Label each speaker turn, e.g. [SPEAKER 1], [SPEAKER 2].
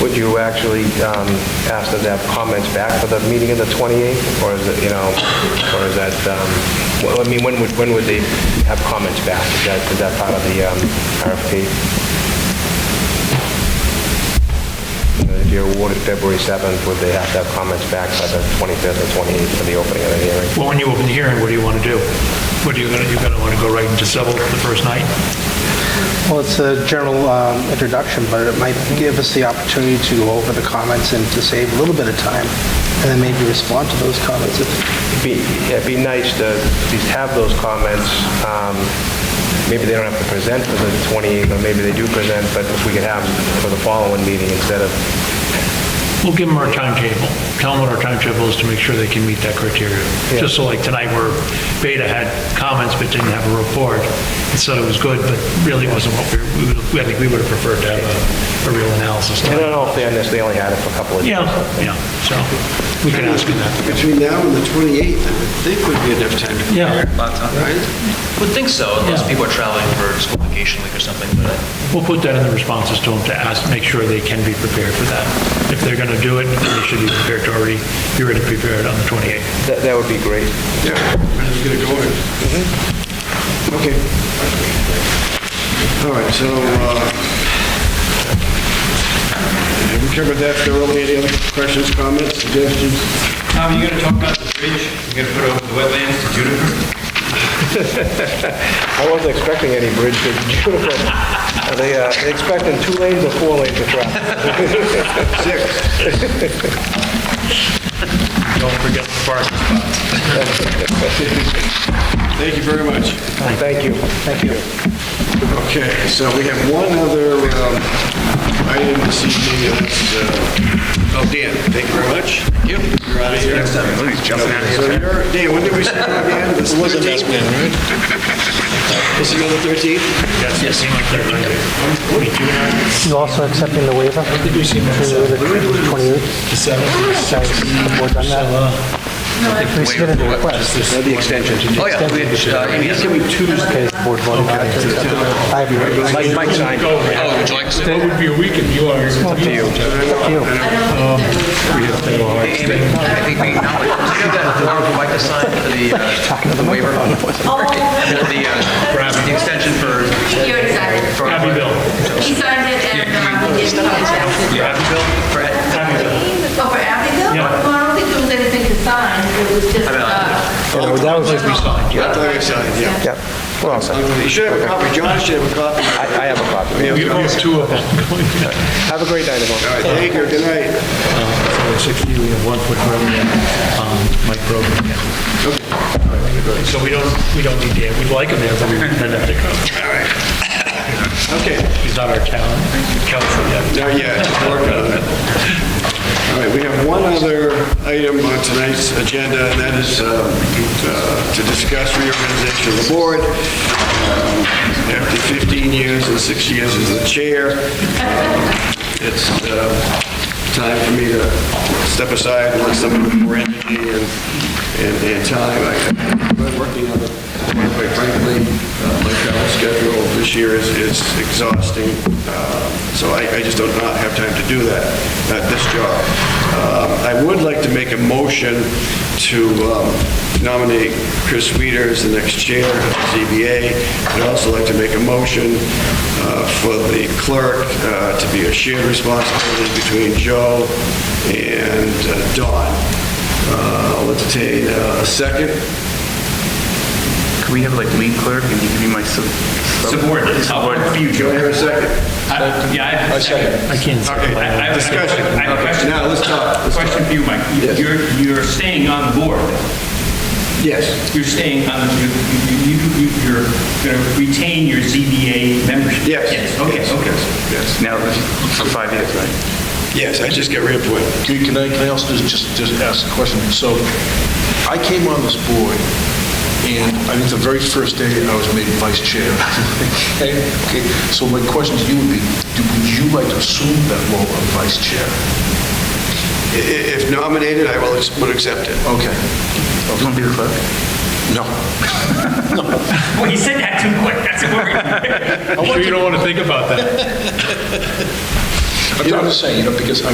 [SPEAKER 1] would you actually um, ask them to have comments back for the meeting of the 28th? Or is it, you know, or is that, um, well, I mean, when would, when would they have comments back? Is that, is that part of the um, RFP? If you're awarded February 7th, would they have to have comments back by the 25th or 28th for the opening of the hearing?
[SPEAKER 2] Well, when you open the hearing, what do you want to do? What are you going to, you're going to want to go right into civil the first night?
[SPEAKER 3] Well, it's a general um, introduction, but it might give us the opportunity to go over the comments and to save a little bit of time, and then maybe respond to those comments. if-
[SPEAKER 1] be, it'd be nice to at least have those comments. Um, Maybe they don't have to present for the 28th, or maybe they do present, but if we could have for the following meeting instead of,
[SPEAKER 2] We'll give them our timetable. Tell them what our timetable is to make sure they can meet that criteria. Just so like tonight where Beta had comments but didn't have a report, and said it was good, but really wasn't what we, we would- I think we would have preferred to have a, a real analysis.
[SPEAKER 1] I
[SPEAKER 2] done.
[SPEAKER 1] don't know if they understand, they only had it for a couple of days.
[SPEAKER 2] Yeah, yeah, so we can ask them that.
[SPEAKER 4] Between now and the 28th, I would think would be enough time to
[SPEAKER 2] Yeah.
[SPEAKER 4] prepare.
[SPEAKER 5] Lots of time.
[SPEAKER 4] Right?
[SPEAKER 5] Would think so, unless
[SPEAKER 2] Yeah.
[SPEAKER 5] people are traveling for school vacation week or something, but uh,
[SPEAKER 2] We'll put that in the responses to them to ask, make sure they can be prepared for that. If they're going to do it, they should be prepared to already, be ready to prepare it on the 28th.
[SPEAKER 1] That that would be great.
[SPEAKER 4] Yeah, I was gonna go in. Okay. All right, so, uh, have we covered that thoroughly? Any other questions, comments, suggestions?
[SPEAKER 6] Tom, you gonna talk about the bridge? You gonna put over the wetlands to Juniper?
[SPEAKER 1] I wasn't expecting any bridge, but beautiful. Are They uh, they expecting two lanes or four lanes of traffic?
[SPEAKER 4] Six.
[SPEAKER 5] don't forget the parking spots.
[SPEAKER 4] Thank you very much.
[SPEAKER 1] Thank you. Thank you.
[SPEAKER 4] Okay, so we have one other um, item this evening, and that's, uh, oh, Dan, thank you very much. Thank you. You're out of here. So you're, Dan, when did we start again? It was a mess, man, right? This is on the 13th?
[SPEAKER 2] Yes.
[SPEAKER 3] You also accepting the waiver? Did you see that? The 7th. We're done that? We submitted a request.
[SPEAKER 4] The extension.
[SPEAKER 5] Oh, yeah, we had, uh, Amy, yes.
[SPEAKER 3] Okay, the board voted on it. I have your-
[SPEAKER 1] Mike Mike signed. it.
[SPEAKER 5] oh, would you like to say?
[SPEAKER 2] That would be a week if you are.
[SPEAKER 3] Up to you.
[SPEAKER 5] Amy, I think we acknowledge, do you have that form would like to sign for the, uh, the waiver? The, uh, the extension for,
[SPEAKER 7] You're exactly.
[SPEAKER 5] for.
[SPEAKER 2] Happy Bill.
[SPEAKER 7] He signed it and, um, he didn't contact.
[SPEAKER 5] Yeah, Happy Bill, for Ed.
[SPEAKER 7] Oh, for Abigail?
[SPEAKER 2] Yeah.
[SPEAKER 7] Well, I don't think there was anything to sign, it was just,
[SPEAKER 5] I mean,
[SPEAKER 7] uh.
[SPEAKER 3] Yeah, well, that was like we
[SPEAKER 7] signed,
[SPEAKER 4] I thought we signed, yeah.
[SPEAKER 1] Yep. Well,
[SPEAKER 4] You should have a copy, John should have a copy.
[SPEAKER 1] I I have a copy.
[SPEAKER 2] You have two of them.
[SPEAKER 1] Have a great night, everyone.
[SPEAKER 4] All right, thank you, good night.
[SPEAKER 2] Sixty, we have one for Grogan, um, Mike Grogan. So we don't, we don't need Dan, we'd like him there, but we don't have to come.
[SPEAKER 4] Okay,
[SPEAKER 2] He's not our talent, council yet.
[SPEAKER 4] now, yeah, just working on it. All right, we have one other item on tonight's agenda, and that is um, uh, to discuss reorganization of the board. Um, After 15 years and six years as the chair, um, it's uh, time for me to step aside and let someone with more energy and, and and time. I've been working on it, quite frankly, uh, my travel schedule this year is, is exhausting, uh, so I, I just don't not have time to do that, at this job. Um, I would like to make a motion to um, nominate Chris Weider as the next chair of the ZBA. I'd also like to make a motion uh, for the clerk uh, to be a shared responsibility between Joe and uh, Dawn. Uh, I'll entertain uh, a second.
[SPEAKER 8] Can we have like lead clerk and you can be my sub? sub-
[SPEAKER 6] Subordinate.
[SPEAKER 8] Subordinate.
[SPEAKER 4] Do I hear a second?
[SPEAKER 6] I- Yeah, I have a second.
[SPEAKER 2] I can't say.
[SPEAKER 4] Okay,
[SPEAKER 6] I- I have a- I have a
[SPEAKER 4] Oh, discussion.
[SPEAKER 6] question.
[SPEAKER 4] Now, let's talk. Let's talk.
[SPEAKER 6] Question for you, Mike. You-
[SPEAKER 4] Yes.
[SPEAKER 6] You're, you're staying on the board.
[SPEAKER 4] Yes.
[SPEAKER 6] You're staying on, you, you, you- you- you're gonna retain your ZBA membership.
[SPEAKER 4] Yes.
[SPEAKER 6] Yes, okay,
[SPEAKER 4] Yes.
[SPEAKER 6] okay.
[SPEAKER 4] Yes.
[SPEAKER 8] Now, for five years, right?
[SPEAKER 4] Yes, I just got reappointed.
[SPEAKER 9] Can can I, can I also just- just, just ask a question? So I came on this board, and I think the very first day I was made vice chair. Okay, okay. so my question to you would be, do- would you like to assume that role of vice chair?
[SPEAKER 4] I- i- If nominated, I will, ex- would accept it.
[SPEAKER 9] Okay.
[SPEAKER 8] You want to be the clerk?
[SPEAKER 9] No.
[SPEAKER 6] Well, you said that too quick, that's worrying.
[SPEAKER 2] I'm sure you don't want to think about that.
[SPEAKER 9] I'm just saying, you know, because I